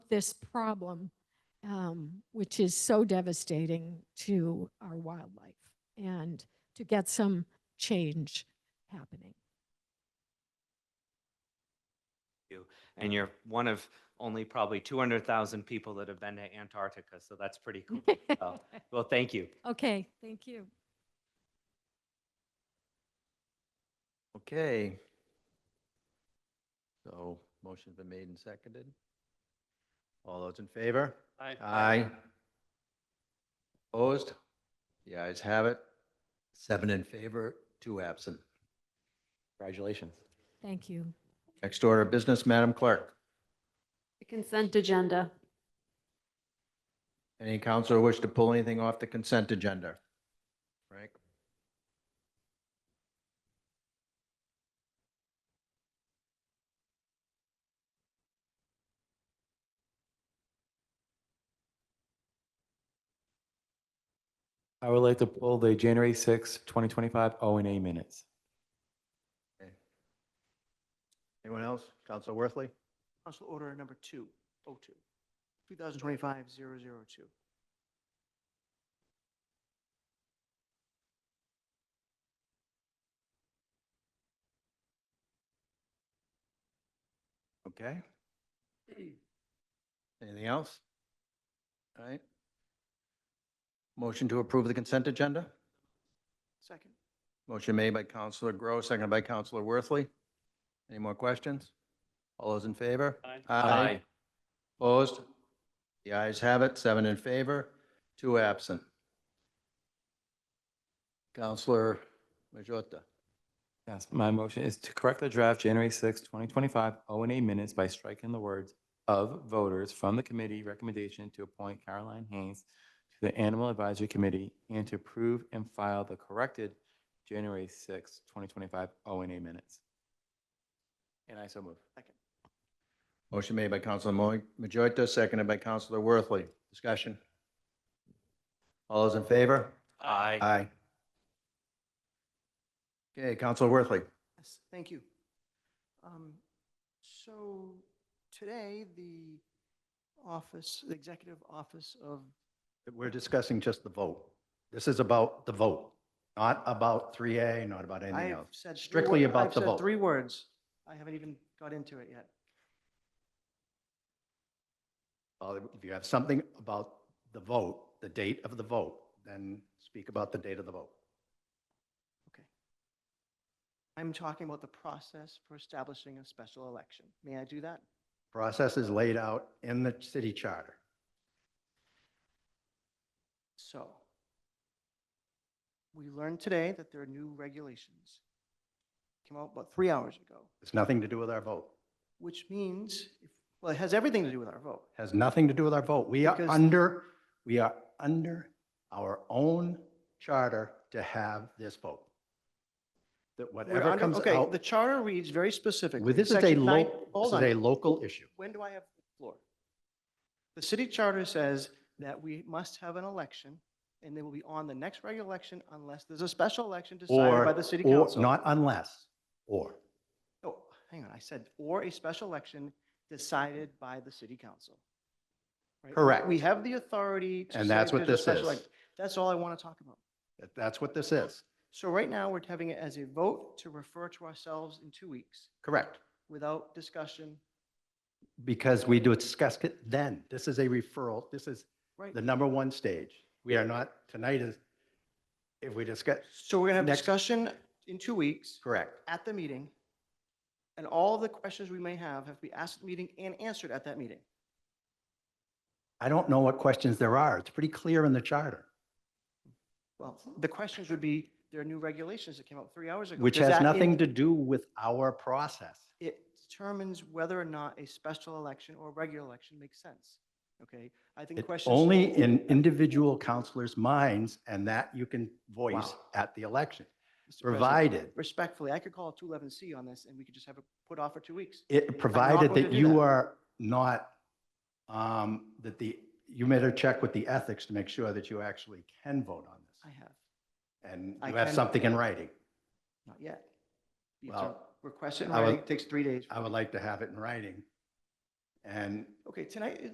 this problem, um, which is so devastating to our wildlife and to get some change happening. and you're one of only probably 200,000 people that have been to Antarctica, so that's pretty cool. Oh. Well, thank you. Okay, thank you. Okay. So motion's been made and seconded. All those in favor? Aye. Opposed? The ayes have it. Seven in favor, two absent. Congratulations. Thank you. Next order of business, Madam Clerk. The consent agenda. Any counselor wish to pull anything off the consent agenda? Frank? I would like to pull the January sixth, twenty 2025 O and A minutes. Anyone else? Counselor Worthley? Council Order Number 202, 2025-002. Okay. Anything else? All right. Motion to approve the consent agenda? Second. Motion made by Counselor Groh, seconded by Counselor Worthley. Any more questions? All those in favor? Aye. Opposed? The ayes have it, seven in favor, two absent. Counselor Majota, Yes, my motion is to correct the draft January sixth, twenty 2025 O and A minutes by striking the words "of voters" from the committee recommendation to appoint Caroline Haynes to the Animal Advisory Committee and to approve and file the corrected January sixth, twenty 2025 O and A minutes. And I so move. motion made by Counselor Mo- Majota, seconded by Counselor Worthley. Discussion? All those in favor? Aye. Aye. Okay, Counselor Worthley. Yes, thank you. Um, So today, the office, the Executive Office of, We're discussing just the vote. This is about the vote, not about 3A, not about I anything have else. said. three Strictly wor- about I've the said vote. three words. I haven't even got into it yet. Well, if you have something about the vote, the date of the vote, then speak about the date of the vote. Okay. I'm talking about the process for establishing a special election. May I do that? Process is laid out in the city charter. So we learned today that there are new regulations. Came out about three hours ago, It's nothing to do with our vote. which means, if- well, it has everything to do with our vote. Has nothing to do with our vote. We are Because- under, we are under our own charter to have this vote. That We're whatever under- comes Okay, out, the charter reads very specifically. Well, this is a Section nine- local, this Hold is a on. local issue. When do I have the floor? The city charter says that we must have an election and they will be on the next regular election unless there's a special election decided Or, by the city or- council. not unless, or. Oh, hang on, I said, or a special election decided by the city council. Right? Correct. We have the authority to. And say that's if what there's a this special is. elec- That's all I want to talk about. That- That's what this is. So right now, we're having it as a vote to refer to ourselves in two weeks Correct. without discussion, Because we do discuss it then. This is a referral. This is right? the number one stage. We are not, tonight is, if we discuss, So we're going to have next- discussion in two weeks correct. at the meeting. And all the questions we may have have to be asked at the meeting and answered at that meeting. I don't know what questions there are. It's pretty clear in the charter, Well, the questions would be, there are new regulations that came out three hours ago. which Does has that in- nothing to do with our process. it determines whether or not a special election or a regular election makes sense. Okay, I think It's questions. only in individual counselors' minds and that you can voice Wow. at the election, Mr. President, provided, Respectfully, I could call a 211C on this and we could just have it put off for two weeks. it, provided going to that do you that. are not, um, that the, you made a check with the ethics to make sure that you actually can vote on I this. have, And I you have can- something in writing. not yet. You have to Well, request it in I would- writing, it takes three days. I would like to have it in writing. And Okay, tonight,